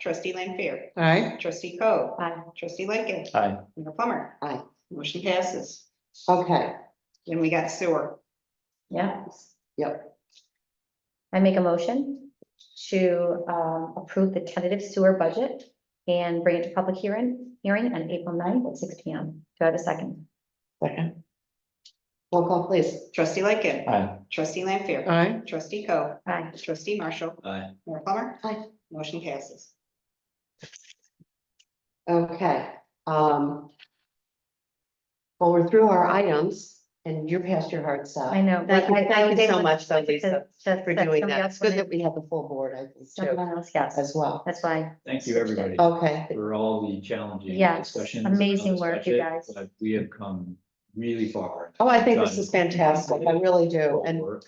Trustee Lanfair. Aye. Trustee Co. Aye. Trustee Lightgev. Aye. Mayor Plummer. Aye. Motion passes. Okay, Then we got sewer. Yeah. yep. I make a motion to um, approve the tentative sewer budget and bring it to public hearing, hearing on April 9th at six P M. Do I have a second? Second. Roll call, please. Trustee Lightgev. Aye. Trustee Lanfair. Aye. Trustee Co. Aye. Trustee Marshall. Aye. Mayor Plummer. Aye. Motion passes. Okay, um. Well, we're through our items and you're past your heart I stop. know. Thank you, but I- I thank was you so able much, though, to- Lisa, to- for that doing somebody that. else It's good that wanted- we have the full board, I think, too, Someone else, yes. as well. That's why. Thank you, everybody, Okay, for all the challenging Yes, discussions. amazing on this work, you budget, guys. but We have come really far. oh, I think this is fantastic, I really do, and Work.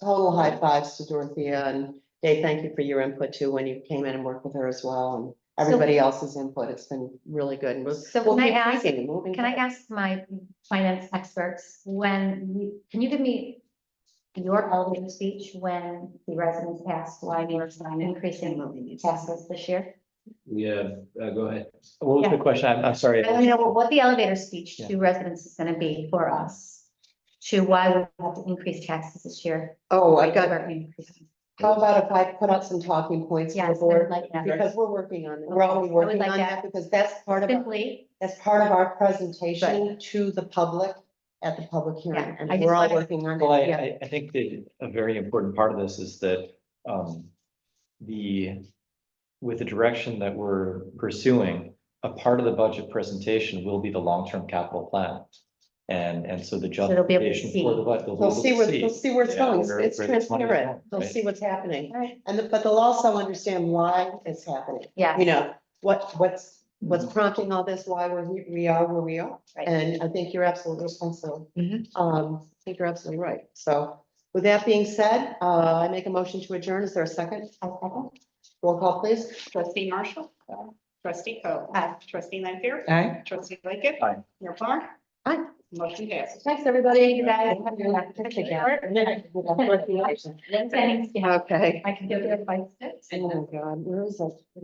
total high fives to Dorothea and Dave, thank you for your input too, when you came in and worked with her as well and everybody else's input. It's been really good and we'll. So we'll can I keep ask- thinking and moving Can I forward. ask my finance experts, when, you- can you give me your elevator speech when the residents asked why we were increasing taxes this year? We have, uh, go ahead. What was the question? I'm, I'm sorry. I want to know what the elevator speech Yeah. to residents is gonna be for us, to why we have to increase taxes this year. Oh, I Why got, we're increasing. how about if I put out some talking points for the Yes, I would board? like that. Because we're working on, we're already I would working like on that. that because that's part of, our- Simply, that's part of our presentation to the public at the public hearing. Yeah, I And just we're all wanted- working on Well, I, it. Yeah. I, I think that a very important part of this is that, um, the, with the direction that we're pursuing, a part of the budget presentation will be the long-term capital plan. And, and so the they'll be able to justification for the budget. They'll see where, they'll see where it's Yeah, going. It's- where- It's where the money's transparent. going, They'll right. see what's happening. Right. And, the- but they'll also understand why it's happening. yeah. you know, what, what's, what's prompting all this, why we're, here- we are where we are. Right. And I think you're absolutely responsible. Mhm. Um, I think you're absolutely right. So with that being said, uh, I make a motion to adjourn. Is there a second? Roll call, please. Trustee Marshall. Trustee Co. Aye. Trustee Lanfair. Aye. Trustee Lightgev. Aye. Mayor Plummer. Aye. Motion passes. Thanks, everybody. You guys. Okay. Thanks, yeah. I can go get a bite. Oh, God, where is that?